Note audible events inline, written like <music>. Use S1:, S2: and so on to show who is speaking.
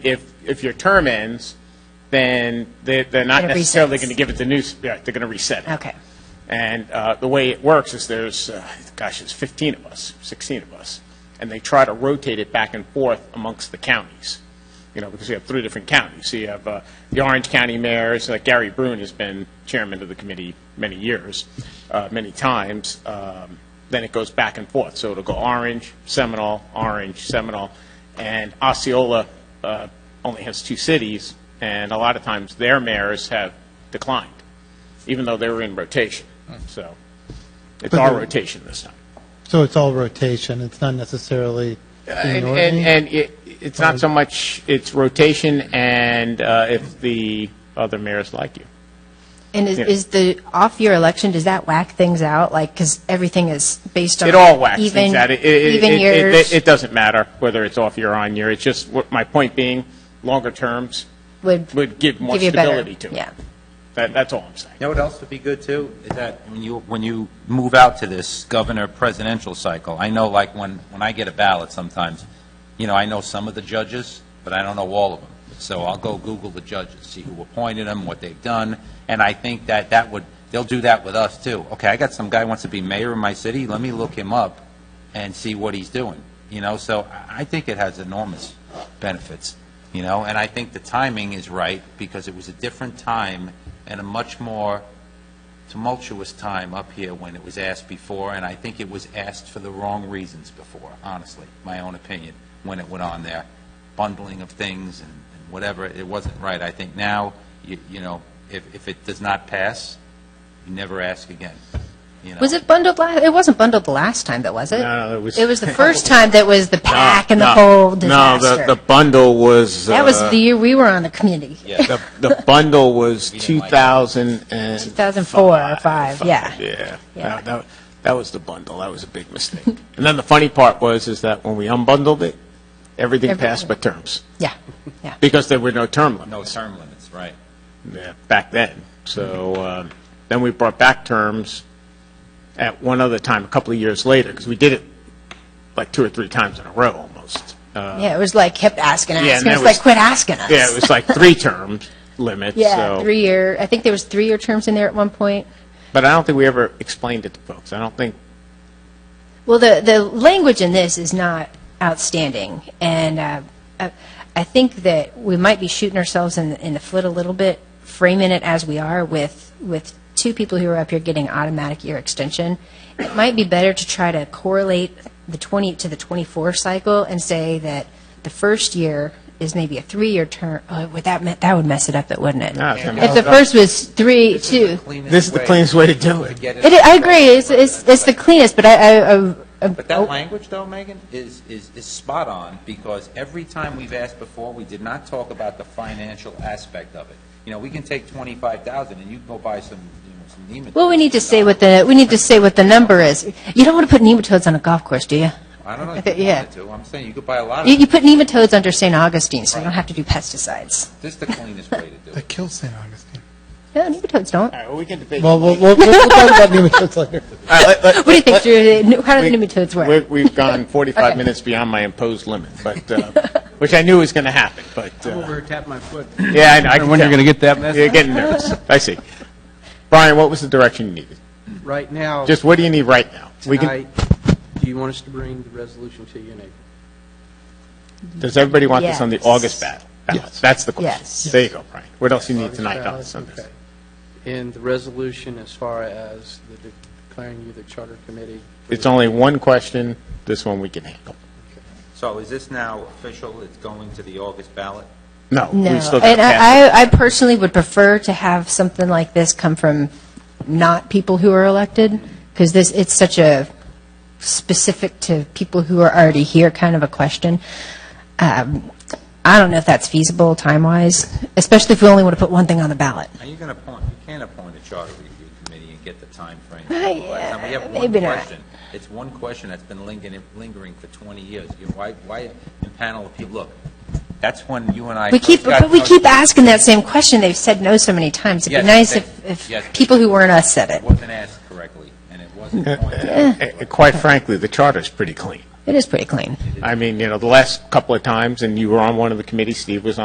S1: if, if your term ends, then they- they're not
S2: It
S1: necessarily
S2: resets.
S1: going to give it the new, s- yeah, they're going to reset it.
S2: Okay.
S1: And uh, the way it works is there's, uh, gosh, there's 15 of us, 16 of us, and they try to rotate it back and forth amongst the counties, you know, because you have three different counties. So you have uh, the Orange County mayors, like Gary Brune has been chairman of the committee many years, uh, many times. Um, Then it goes back and forth. So it'll go Orange, Seminole, Orange, Seminole, and Osceola uh, only has two cities, and a lot of times their mayors have declined even though they were in rotation.
S3: Hmm.
S1: So it's our rotation this time.
S4: So it's all rotation, it's not necessarily
S1: And,
S4: in
S1: and,
S4: order?
S1: and it, it's not so much, it's rotation and uh, if the other mayors like you.
S2: And is,
S1: Yeah.
S2: is the off-year election, does that whack things out? Like, because everything is based on.
S1: It all whacks
S2: even-
S1: things out. It, it,
S2: Even
S1: it, it,
S2: years
S1: it, it doesn't matter whether it's off year or on year. It's just, what- my point being, longer terms
S2: would.
S1: would give more
S2: you a better-
S1: stability to it.
S2: Yeah.
S1: That, that's all I'm saying.
S3: You know what else would be good, too, is that when you, when you move out to this governor presidential cycle, I know, like, when, when I get a ballot sometimes, you know, I know some of the judges, but I don't know all of them. So I'll go Google the judges, see who appointed them, what they've done, and I think that that would, they'll do that with us, too. Okay, I got some guy who wants to be mayor of my city, let me look him up and see what he's doing, you know? So I- I think it has enormous benefits, you know? And I think the timing is right, because it was a different time and a much more tumultuous time up here when it was asked before, and I think it was asked for the wrong reasons before, honestly, my own opinion, when it went on there. Bundling of things and and whatever, it wasn't right. I think now, you you know, if if it does not pass, you never ask again, you know?
S2: Was it bundled last, it wasn't bundled the last time, though, was it?
S1: No, it was-
S2: It was
S1: <laughs>
S2: the first time that was the pack and the
S1: No,
S2: whole
S1: No, the,
S2: disaster.
S1: the bundle was.
S2: That was
S1: uh,
S2: the year we were on the committee.
S3: Yeah.
S1: <laughs> The, the bundle was
S3: didn't like it.
S1: 2000 and.
S2: 2004 or five, yeah.
S1: Yeah.
S2: Yeah.
S1: That- That, that was the bundle. That was a big mistake. And then the funny part was, is that when we unbundled it, everything
S2: Everything.
S1: passed but terms,
S2: Yeah, yeah.
S1: because there were no term
S3: No
S1: limits
S3: term limits, right.
S1: yeah, back then. So um, then we brought back terms at one other time, a couple of years later, because we did it like two or three times in a row almost. Uh,
S2: Yeah, it was like, kept asking,
S1: and
S2: asking.
S1: that
S2: It's
S1: was-
S2: like, quit asking us.
S1: Yeah, it was like three term limits.
S2: <laughs> Yeah,
S1: so-
S2: three-year, I think there was three-year terms in there at one point.
S1: But I don't think we ever explained it to folks. I don't think
S2: Well, the, the language in this is not outstanding, and uh, I, I think that we might be shooting ourselves in, in the foot a little bit, framing it as we are with, with two people who are up here getting automatic year extension. It might be better to try to correlate the 20 to the 24 cycle and say that the first year is maybe a three-year term. Oh, would that me- that would mess it up, though, wouldn't it?
S1: No, it's gonna
S2: if the first was three, two.
S1: this is the cleanest way to do it.
S2: It, I agree. It's, it's, it's the Oh. cleanest, but I, I, I
S3: But that language, though, Megan, is, is, is spot on, because every time we've asked before, we did not talk about the financial aspect of it. You know, we can take twenty-five thousand and you can go buy some, you know, some Nematode.
S2: Well, we need to say what the, we need to say what the number is. You don't want to put nematodes on a golf course, do you?
S3: I don't know if you
S2: Yeah.
S3: wanted to, I'm saying you could buy a lot
S2: You,
S3: of,
S2: you
S3: them.
S2: put nematodes under St. Augustine, so you don't have to do pesticides.
S3: this is the cleanest way to do it.
S5: That kills St. Augustine.
S2: No, nematodes don't.
S1: All right, well, we can debate.
S4: Well, we'll, we'll we'll talk about nematodes later.
S2: What do you think, Drew? How do the nematodes
S1: We-
S2: work?
S1: We've
S2: <laughs>
S1: gone 45
S2: Okay.
S1: minutes beyond my imposed limit, but, uh, which I knew was going to happen, but, uh,
S6: Over tap my foot.
S1: yeah, I know. I can
S6: When you're
S1: tell.
S6: going to get that message?
S1: You're getting
S6: <laughs>
S1: nervous. I see. Brian, what was the direction you needed?
S6: Right now,
S1: Just what do you need right now? We can.
S6: tonight, do you want us to bring the resolution to you in April?
S1: Does everybody want this on the
S2: Yes.
S1: August ballot? Ballots. That's the question.
S2: Yes.
S1: There you go, Brian. What else you need
S6: August
S1: tonight on
S6: ballot,
S1: this? on this?
S6: okay. And the resolution as far as the declaring you the charter committee? for
S1: It's
S6: the-
S1: only one question. This one we can handle.
S3: <laughs> So is this now official, it's going to the August ballot?
S1: No,
S2: No.
S1: we still got to
S2: And
S1: pass
S2: I, I- I personally would prefer to have something like this come from not people who are elected, because this, it's such a specific to people who are already here kind of a question. Um, I don't know if that's feasible time-wise, especially if we only want to put one thing on the ballot.
S3: Are you going to appoint, you can't appoint a charter review committee and get
S2: <laughs>
S3: the timeframe.
S2: Right,
S3: Last time, We have one
S2: maybe not.
S3: question. It's one question that's been lingering, lingering for 20 years. You know, Why, why a panel of people, look, that's when you and I.
S2: We
S3: first
S2: keep,
S3: got
S2: but we
S3: to know
S2: keep
S3: you.
S2: asking that same question. They've said no so many times. It'd be
S3: Yes,
S2: nice
S3: they-
S2: if,
S3: yes.
S2: if people who weren't us said it. <laughs>
S3: It wasn't asked correctly, and it wasn't pointed out.
S1: Eh, it. Uh, Quite frankly, the charter's pretty clean.
S2: It is pretty clean.
S1: I mean, you know, the last couple of times, and you were on one of the committees, Steve was on